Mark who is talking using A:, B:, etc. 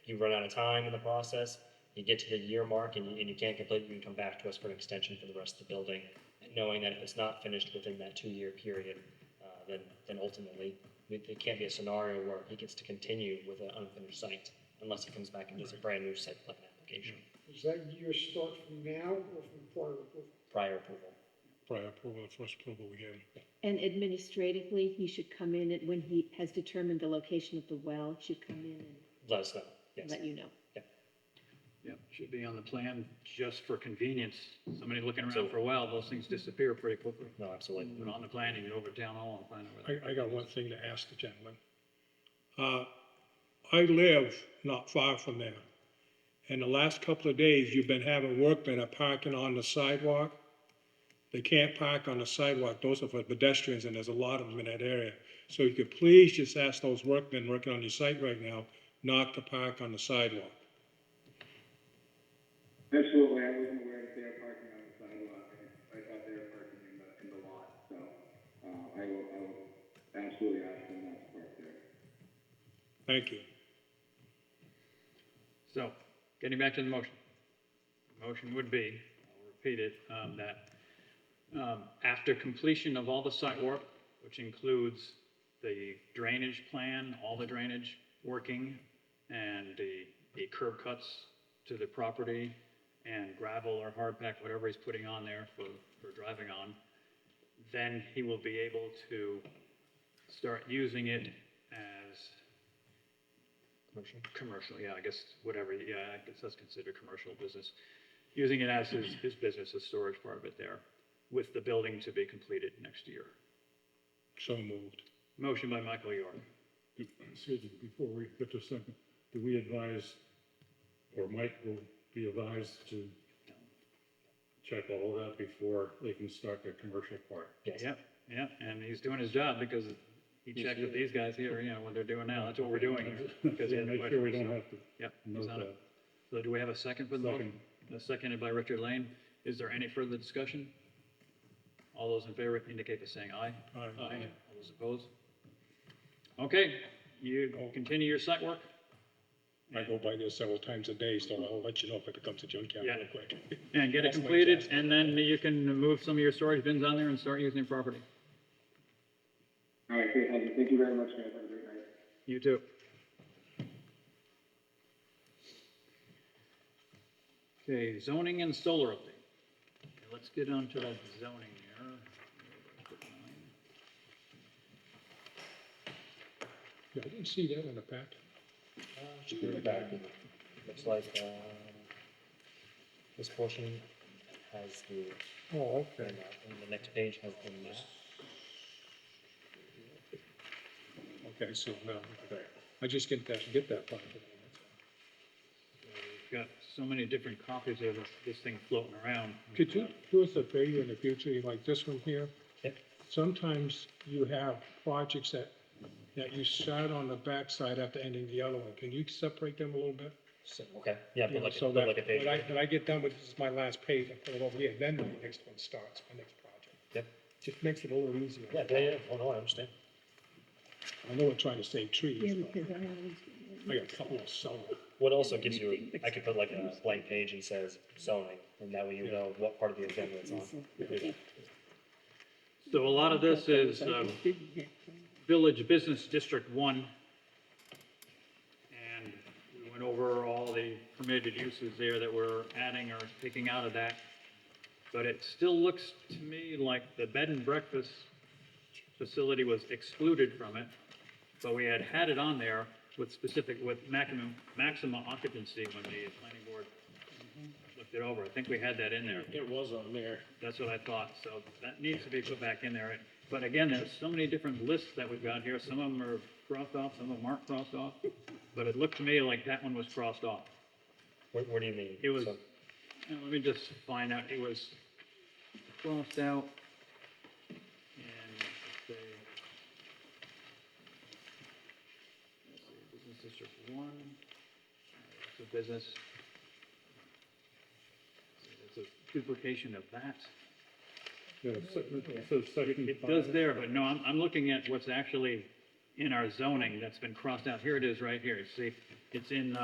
A: you run out of time in the process, you get to the year mark and you, and you can't complete, you can come back to us for an extension for the rest of the building, knowing that if it's not finished within that two-year period, uh, then, then ultimately, it, it can't be a scenario where he gets to continue with an unfinished site unless he comes back and does a brand-new site plan application,
B: Does that year start from now or from
A: prior
B: prior approval?
A: approval.
C: prior approval, the first approval we had.
D: And administratively, he should come in and when he has determined the location of the well, should come in
A: Let us know, yes.
D: and let you know.
E: Yep, should be on the plan just for convenience. Somebody looking
A: So-
E: around for a while, those things disappear pretty quickly.
A: No, absolutely.
E: Put it on the plan, you go over to town hall and find out where.
C: I, I got one thing to ask the gentleman. Uh, I live not far from there. And the last couple of days, you've been having workmen are parking on the sidewalk. They can't park on the sidewalk. Those are for pedestrians, and there's a lot of them in that area. So you could please just ask those workmen working on your site right now not to park on the sidewalk.
F: Absolutely, I wasn't aware that they were parking on the sidewalk, I, I thought they were parking in the, in the lot, so, uh, I will, I will absolutely ask them not to park there.
C: Thank you.
E: So, getting back to the motion. The Motion would be, I'll repeat it, um, that, um, after completion of all the site work, which includes the drainage plan, all the drainage working, and the, the curb cuts to the property, and gravel or hard pack, whatever he's putting on there for, for driving on, then he will be able to start using it as
A: Commercial.
E: commercial, yeah, I guess, whatever, yeah, I guess that's considered commercial business. Using it as his,
G: Mm-hmm.
E: his business, his storage part of it there, with the building to be completed next year.
C: So moved.
E: Motion by Michael York.
G: Excuse me, before we get to second, do we advise, or Mike will be advised to check all of that before they can start their commercial part?
A: Yes.
E: Yep, yep, and he's doing his job because he
G: He's
E: checked with
G: here.
E: these guys here, you know, what they're doing now, that's what we're doing here. because he
G: Yeah,
E: had
G: Make sure we
E: questions.
G: don't have to
E: Yep, he's
G: note
E: on it.
G: that.
E: So do we have a second for the motion? A seconded by Richard Lane. Is there any further discussion? All those in favor indicate by saying aye.
C: Aye.
E: All those opposed? Okay, you continue your site work?
C: I go by there several times a day, so I'll let you know if it becomes a junkyard
E: Yeah.
C: real quick.
E: And get it
C: That's my
E: completed,
C: task.
E: and then you can move some of your storage bins on there and start using your property.
F: All right, great, Heather, thank you very much, guys, have a great night.
E: You too. Okay, zoning and solar update. Okay, Let's get on to that zoning here.
C: Yeah, I didn't see that in the packet.
A: Uh, should be in the back. Looks like, uh, this portion has the,
C: Oh,
A: and the next page has the map.
C: Okay, so, no, okay. I just get that, get that part.
E: We've got so many different copies of this, this thing floating around.
C: Could you do us a favor in the future, like this one here?
A: Yep.
C: Sometimes you have projects that, that you start on the backside after ending the other one. Can you separate them a little bit?
A: So, okay, yeah,
C: You
A: but
C: know,
A: like,
C: so
A: but
C: that
A: like a page.
C: When I, when I get done with, this is my last page, I put it over here, then the next one starts, my next project.
A: Yep.
C: Just makes it a little easier.
A: Yeah, yeah, yeah, oh, no, I understand.
C: I know we're trying to save
D: Yeah,
C: trees, but
D: because I always.
C: I got a couple of summer.
A: What also gives you, I could put like a blank page and says zoning, and that way you know what part of the agenda it's on.
E: So a lot of this is, uh, Village Business District One. And we went over all the permitted uses there that we're adding or taking out of that. But it still looks to me like the bed and breakfast facility was excluded from it. But we had had it on there with specific, with maximum, maximum occupancy when the planning board looked it over. I think we had that in there.
G: It was on there.
E: That's what I thought, so that needs to be put back in there. But again, there's so many different lists that we've got here, some of them are crossed off, some of them aren't crossed off. But it looked to me like that one was crossed off.
A: What, what do you mean?
E: It was,
A: So-
E: and let me just find out, it was crossed out. And let's see. Let's see, business district one, it's a business. It's a duplication of that.
G: Yeah, so- so section
E: It
G: five.
E: does there, but no, I'm, I'm looking at what's actually in our zoning that's been crossed out. Here it is, right here. See, it's in, uh,